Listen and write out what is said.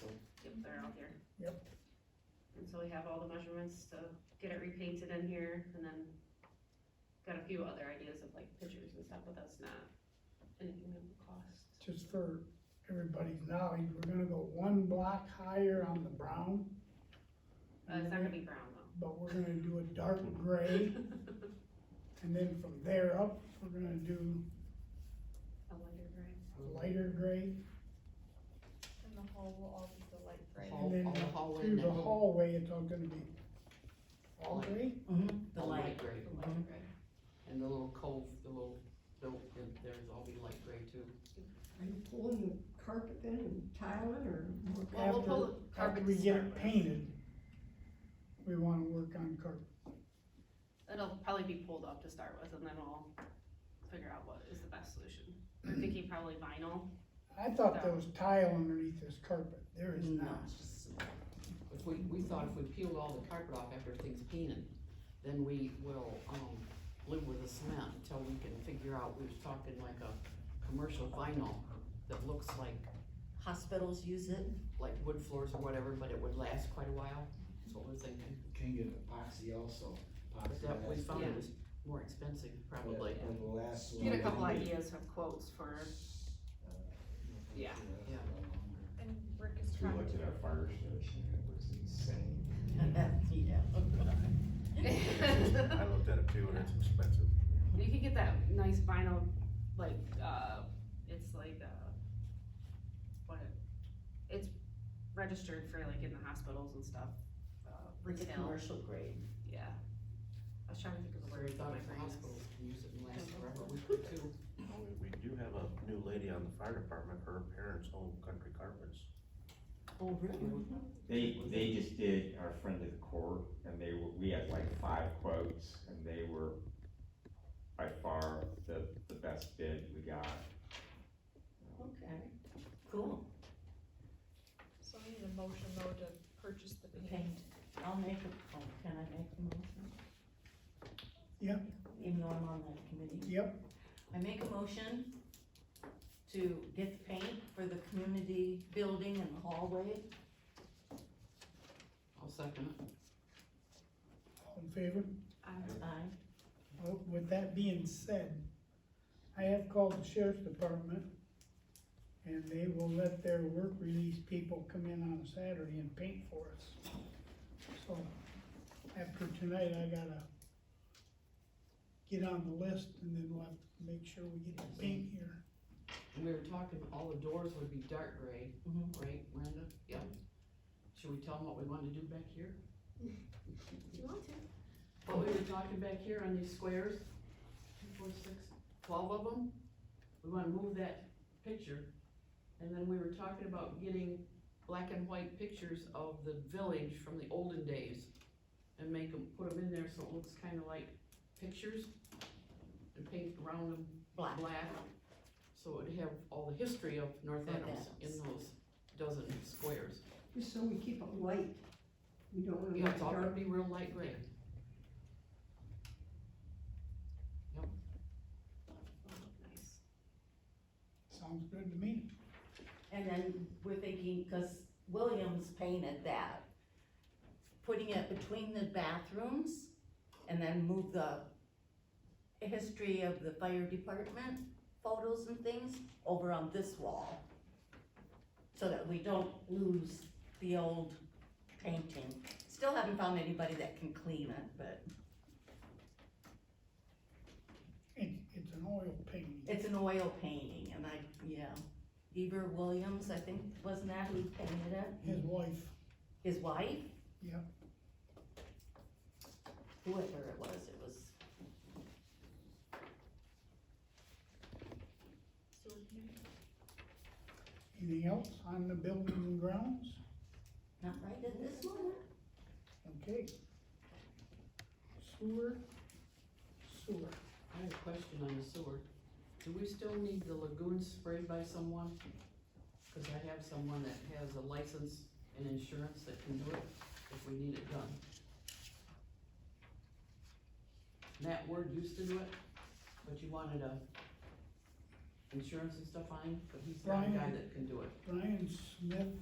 that are out there. Yep. And so we have all the measurements to get it repainted in here, and then got a few other ideas of like pictures and stuff, but that's not anything that would cost. just for everybody's knowledge, we're gonna go one block higher on the brown. Uh, it's not gonna be brown though. But we're gonna do a dark gray, and then from there up, we're gonna do A lighter gray. a lighter gray. And the hall will all be the light gray. Hall. And then All- all the hallway through and the that whole- hallway, it's all gonna be all Light. gray. The light gray, mhm. The Mm-hmm. light gray. and the little cove, the little, built in there's all be light gray too. Are you pulling the carpet in and tiling or? Well, we'll After- pull the carpet After we to get start it with. painted, we wanna work on carpet. It'll probably be pulled up to start with, and then we'll figure out what is the best solution. I'm thinking probably vinyl. I thought there was tile underneath this carpet, there is No, not. it's just- If we, we thought if we peeled all the carpet off after everything's painted, then we will, um, live with the cement until we can figure out, we was talking like a commercial vinyl that looks like hospitals use it, like wood floors or whatever, but it would last quite a while, that's what we're thinking. Can get epoxy also. But that, we Epoxy found Yeah. it was more expensive has- probably, And the last one. uh, Get a couple ideas of quotes for, Yeah. Yeah. And Rick is We trying looked at to. our fire station and it was insane. yeah. I looked at it too and it's expensive. you could get that nice vinyl, like, uh, it's like, uh, what, it- it's registered for like in the hospitals and stuff, uh, retail, grade. yeah. I was trying to think of a Where we word for thought my if the brain is. hospitals can use it and last forever, we could too. We- We do have a new lady on the fire department, her parents own country carpets. Oh, really? They, they just did our friend of the court, and they were, we had like five quotes, and they were by far the, the best bid we got. Okay, cool. So I need a motion though to purchase the paint. I'll make a, oh, can I make a motion? Yep. Even though I'm on that committee. Yep, I make a motion to get the paint for the community building and the hallway. I'll second it. all in favor? Uh, Aye. Well, with that being said, I have called the sheriff's department, and they will let their work release people come in on a Saturday and paint for us. So, after tonight, I gotta get on the list, and then we'll have to make sure we get the paint here. And we were talking, all the doors would be dark gray, Mhm. right, Miranda? Yeah. Should we tell them what we want to do back here? Do you want to? What we were talking back here on these squares, two, four, six, twelve of them? We wanna move that picture. And then we were talking about getting black and white pictures of the village from the olden days and make them, put them in there so it looks kinda like pictures. And paint around them Black. black, so it'd have all the history of North North Adams in Adams. those dozen squares. Just so we keep it light. We don't wanna Yeah, make it it's all gonna dark. be real light gray. Nice. Sounds good to me. And then we're thinking, cause Williams painted that, putting it between the bathrooms and then move the history of the fire department photos and things over on this wall. So that we don't lose the old painting. Still haven't found anybody that can clean it, but It's, it's an oil painting. it's an oil painting and I, yeah. Eber Williams, I think, wasn't that who painted it? His wife, His wife? yeah, whoever it was, it was, So we're gonna anything else on the building and grounds? not right at this moment. Okay. Sewer, sewer. I have a question on the sewer. Do we still need the lagoon sprayed by someone? Cause I have someone that has a license and insurance that can do it if we need it done. Matt Word used to do it, but you wanted a insurance and stuff on him, but he's not a guy Brian. that can do it. Brian Smith